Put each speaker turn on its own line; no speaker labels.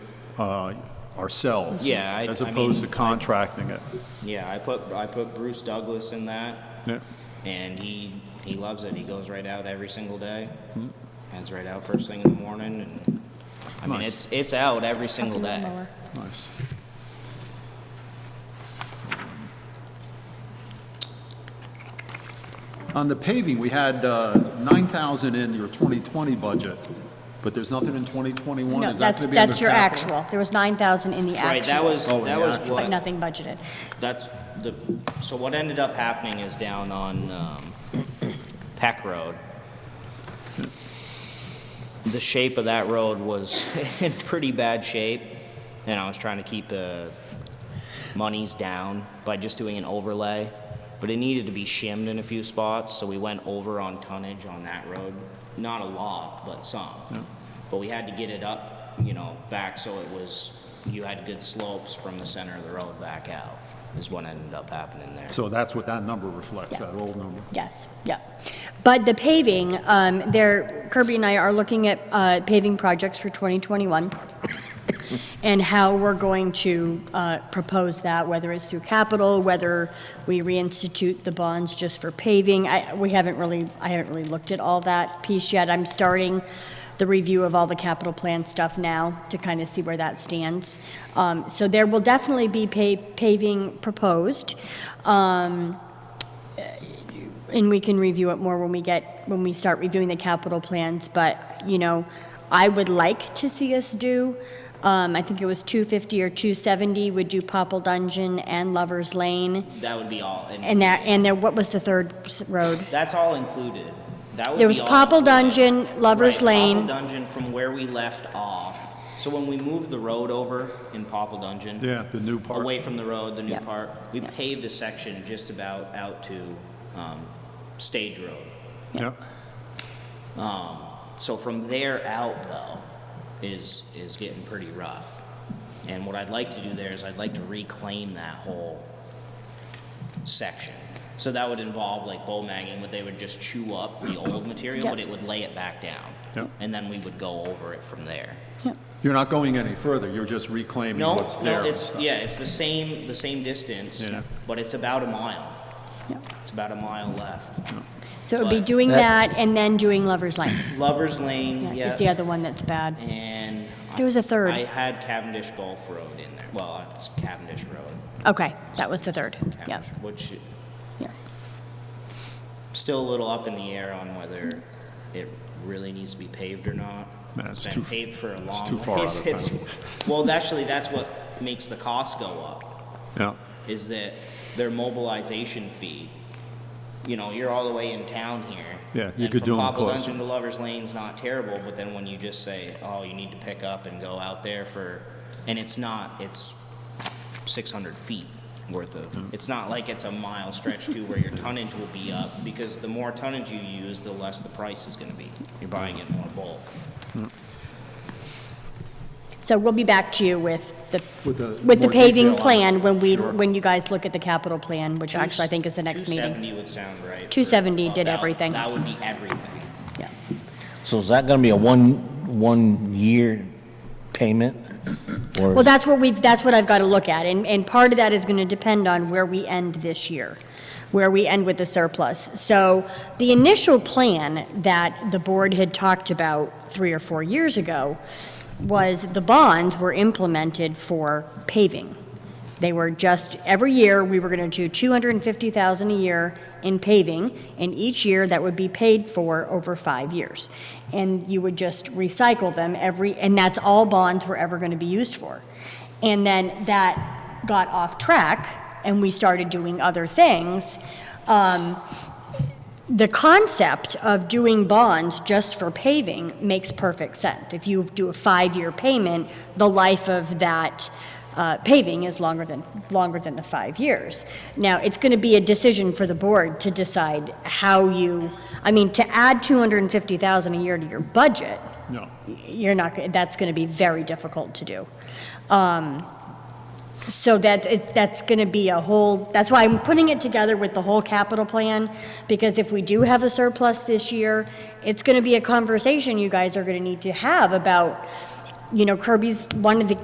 uh, ourselves.
Yeah, I-
As
I mean,
opposed to
I-
contracting it.
Yeah, I put, I put Bruce Douglas in that,
Yeah.
and he, he loves it. He goes right out every single day.
Hmm.
Heads right out first thing in the morning, and, I mean,
Nice.
it's, it's out every single day.
Nice. On the paving, we had uh, 9,000 in your 2020 budget, but there's nothing in 2021?
No,
Is that
that's,
gonna be under
that's your
capital?
actual. There was 9,000 in the actual.
Right, that was,
Oh,
that
yeah.
was
But
what,
nothing budgeted.
that's the, so what ended up happening is down on, um, Peck Road. The shape of that road was in pretty bad shape, and I was trying to keep the monies down by just doing an overlay, but it needed to be shimmed in a few spots, so we went over on tonnage on that road. Not a lot, but some. But we had to get it up, you know, back so it was, you had good slopes from the center of the road back out, is what ended up happening there.
So that's what that number reflects, that old number.
Yes, yeah. But the paving, um, there, Kirby and I are looking at, uh, paving projects for 2021 and how we're going to, uh, propose that, whether it's through capital, whether we reinstitute the bonds just for paving. I, we haven't really, I haven't really looked at all that piece yet. I'm starting the review of all the capital plan stuff now to kind of see where that stands. Um, so there will definitely be pa- paving proposed. And we can review it more when we get, when we start reviewing the capital plans, but, you know, I would like to see us do, um, I think it was 250 or 270, would do Popple Dungeon and Lover's Lane,
That would be all.
and that, and then, what was the third s- road?
That's all included. That would
There was
be all
Popple
included.
Dungeon, Lover's
Right,
Lane.
Popple Dungeon from where we left off. So when we moved the road over in Popple Dungeon.
Yeah, the new part.
Away from the road, the new
Yep.
part, we
Yep.
paved a section just about out to, um, Stage Road.
Yeah.
Um, So from there out though, is, is getting pretty rough. And what I'd like to do there is I'd like to reclaim that whole section. So that would involve like bow magging, where they would just chew up the old material, but
Yep.
it would lay it back down.
Yep.
And then we would go over it from there.
You're not going any further, you're just reclaiming
No,
what's there.
no,
and
it's,
stuff.
yeah, it's the same, the same distance,
Yeah.
but it's about a mile.
Yeah.
It's about a mile left.
So it would be
But-
doing
That-
that and then doing Lover's Lane,
Lover's Lane,
yeah, is the
yeah,
other one that's bad.
and. I-
There was a third.
I had Cavendish Golf Road in there. Well, it's Cavendish Road.
Okay, that was the third, yeah,
Cavendish, Which,
yeah.
still a little up in the air on whether it really needs to be paved or not.
Man,
It's
it's
been
too-
paved for a long.
too far out
ways.
of
It's-
town.
Well, actually, that's what makes the cost go up,
Yeah,
is that their mobilization fee. You know, you're all the way in town here.
Yeah, you
and
could do 'em
From Popple
close.
Dungeon to Lover's Lane's not terrible, but then when you just say, oh, you need to pick up and go out there for, and it's not, it's six hundred feet worth of, it's not like it's a mile stretch too where your tonnage will be up, because the more tonnage you use, the less the price is gonna be. You're buying it more bulk.
So we'll be back to you with the,
With the
with the
more detail
paving
on it.
plan when we,
Sure.
when you guys look at the capital plan, which actually I think is the next meeting.
270 would sound right.
270 did
About-
everything.
That would be everything.
Yeah.
So is that gonna be a one, one-year payment? or-
Well, that's what we've, that's what I've got to look at, and, and part of that is going to depend on where we end this year, where we end with the surplus. So the initial plan that the board had talked about three or four years ago was the bonds were implemented for paving. They were just, every year, we were going to do 250,000 a year in paving, and each year that would be paid for over five years. And you would just recycle them every, and that's all bonds were ever going to be used for. And then that got off track, and we started doing other things. Um, the concept of doing bonds just for paving makes perfect sense. If you do a five-year payment, the life of that uh, paving is longer than, longer than the five years. Now, it's going to be a decision for the board to decide how you, I mean, to add 250,000 a year to your budget,
no.
you're not, gonna- that's going to be very difficult to do. Um, So that, it- that's going to be a whole, that's why I'm putting it together with the whole capital plan, because if we do have a surplus this year, it's going to be a conversation you guys are going to need to have about, you know, Kirby's, one of the